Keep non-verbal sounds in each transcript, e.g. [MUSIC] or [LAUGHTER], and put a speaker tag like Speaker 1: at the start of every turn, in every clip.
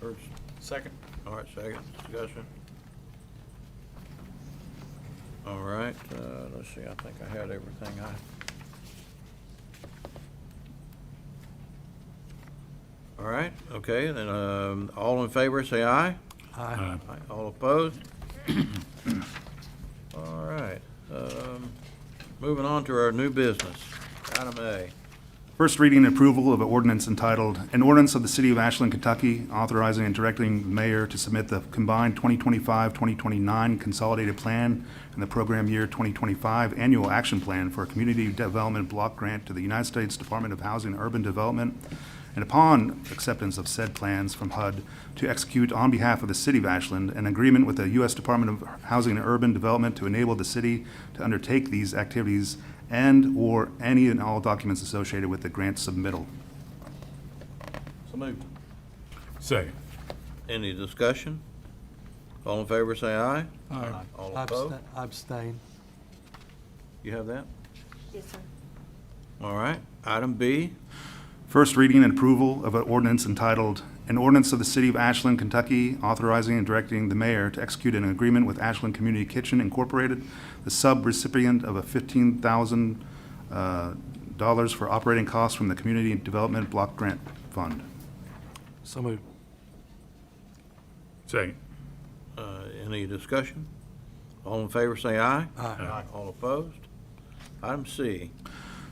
Speaker 1: First,
Speaker 2: Second.
Speaker 1: all right, second, discussion. All right, uh, let's see, I think I had everything I. All right, okay, then, um, all in favor, say aye.
Speaker 3: Aye.
Speaker 1: Aye. All opposed? [COUGHS] All right, um, moving on to our new business, item A.
Speaker 3: First reading and approval of an ordinance entitled, "An Ordinance of the City of Ashland, Kentucky Authorizing and Directing the Mayor to Submit the Combined 2025-2029 Consolidated Plan and the Program Year 2025 Annual Action Plan for a Community Development Block Grant to the United States Department of Housing and Urban Development, and upon acceptance of said plans from HUD, to execute on behalf of the City of Ashland an agreement with the U.S. Department of Housing and Urban Development to enable the city to undertake these activities and/or any and all documents associated with the grant submittal.
Speaker 1: So moved.
Speaker 4: Second.
Speaker 1: Any discussion? All in favor, say aye.
Speaker 4: Aye.
Speaker 1: All opposed?
Speaker 5: Abstain. Abstain.
Speaker 1: You have that?
Speaker 6: Yes, sir.
Speaker 1: All right, item B,
Speaker 3: First reading and approval of an ordinance entitled, "An Ordinance of the City of Ashland, Kentucky Authorizing and Directing the Mayor to Execute an Agreement with Ashland Community Kitchen Incorporated, the sub-recipient of a $15,000 uh, dollars for operating costs from the Community Development Block Grant Fund."
Speaker 5: So moved.
Speaker 4: Second.
Speaker 1: uh, any discussion? All in favor, say aye.
Speaker 4: Aye.
Speaker 1: All opposed? Item C,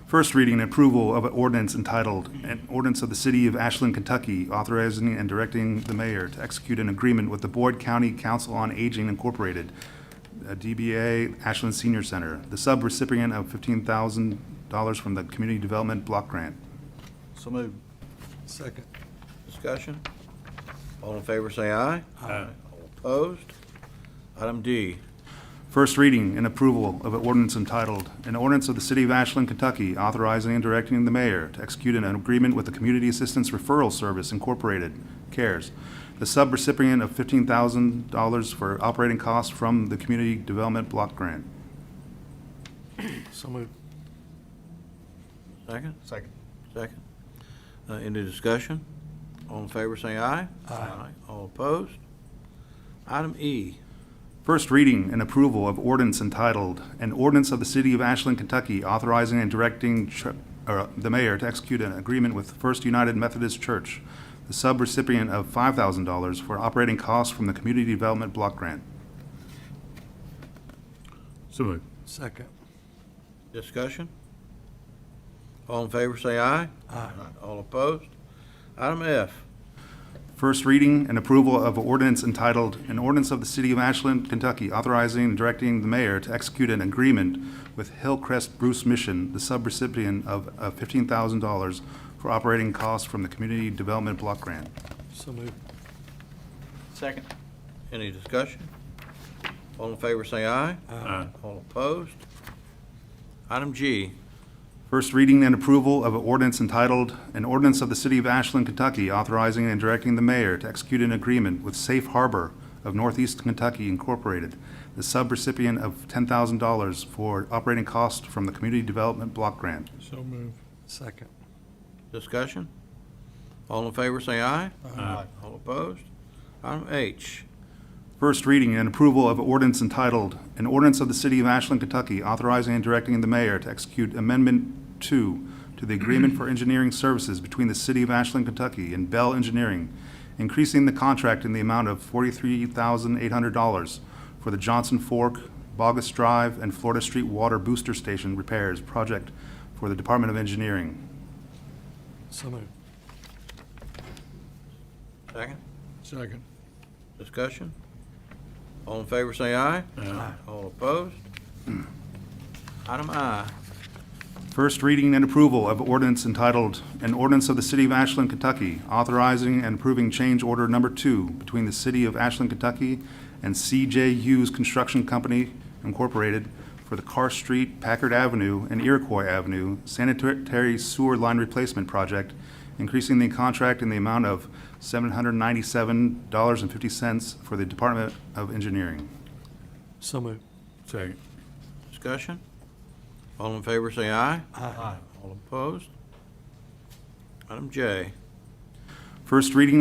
Speaker 3: First reading and approval of an ordinance entitled, An Ordinance of the City of Ashland, Kentucky Authorizing and Directing the Mayor to Execute an Agreement with the Board County Council on Aging Incorporated, uh, DBA Ashland Senior Center, the sub-recipient of $15,000 from the Community Development Block Grant.
Speaker 2: So moved.
Speaker 5: Second.
Speaker 1: discussion? All in favor, say aye.
Speaker 4: Aye.
Speaker 1: All opposed? Item D,
Speaker 3: First reading and approval of an ordinance entitled, An Ordinance of the City of Ashland, Kentucky Authorizing and Directing the Mayor to Execute an Agreement with the Community Assistance Referral Service Incorporated, CARES, the sub-recipient of $15,000 for operating costs from the Community Development Block Grant.
Speaker 5: So moved.
Speaker 1: second,
Speaker 2: Second.
Speaker 1: second. Uh, Any discussion? All in favor, say aye.
Speaker 5: Aye.
Speaker 1: All opposed? Item E,
Speaker 3: First reading and approval of ordinance entitled, An Ordinance of the City of Ashland, Kentucky Authorizing and Directing Ch- or the Mayor to Execute an Agreement with First United Methodist Church, the sub-recipient of $5,000 for operating costs from the Community Development Block Grant.
Speaker 4: So moved.
Speaker 5: Second.
Speaker 1: discussion? All in favor, say aye.
Speaker 5: Aye.
Speaker 1: All opposed? Item F,
Speaker 3: First reading and approval of ordinance entitled, An Ordinance of the City of Ashland, Kentucky Authorizing and Directing the Mayor to Execute an Agreement with Hillcrest Bruce Mission, the sub-recipient of uh, $15,000 for operating costs from the Community Development Block Grant.
Speaker 5: So moved.
Speaker 2: Second.
Speaker 1: Any discussion? All in favor, say aye.
Speaker 4: Aye.
Speaker 1: All opposed? Item G,
Speaker 3: First reading and approval of an ordinance entitled, An Ordinance of the City of Ashland, Kentucky Authorizing and Directing the Mayor to Execute an Agreement with Safe Harbor of Northeast Kentucky Incorporated, the sub-recipient of $10,000 for operating costs from the Community Development Block Grant.
Speaker 4: So moved.
Speaker 5: Second.
Speaker 1: discussion? All in favor, say aye.
Speaker 4: Aye.
Speaker 1: All opposed? Item H,
Speaker 3: First reading and approval of ordinance entitled, An Ordinance of the City of Ashland, Kentucky Authorizing and Directing the Mayor to Execute Amendment Two to the Agreement for Engineering Services between the City of Ashland, Kentucky and Bell Engineering, increasing the contract in the amount of forty-three thousand eight hundred dollars for the Johnson Fork, Bogus Drive, and Florida Street Water Booster Station Repairs Project for the Department of Engineering.
Speaker 5: So moved.
Speaker 1: second,
Speaker 4: Second.
Speaker 1: discussion? All in favor, say aye.
Speaker 4: Aye.
Speaker 1: All opposed? Item I,
Speaker 3: First reading and approval of ordinance entitled, An Ordinance of the City of Ashland, Kentucky Authorizing and Approving Change Order Number Two Between the City of Ashland, Kentucky and CJ Hughes Construction Company Incorporated for the Carr Street, Packard Avenue, and Iroquois Avenue Sanitary Sewer Line Replacement Project, increasing the contract in the amount of $797.50 for the Department of Engineering.
Speaker 5: So moved.
Speaker 4: Second.
Speaker 1: discussion? All in favor, say aye.
Speaker 5: Aye.
Speaker 1: All opposed? Item J,
Speaker 3: First reading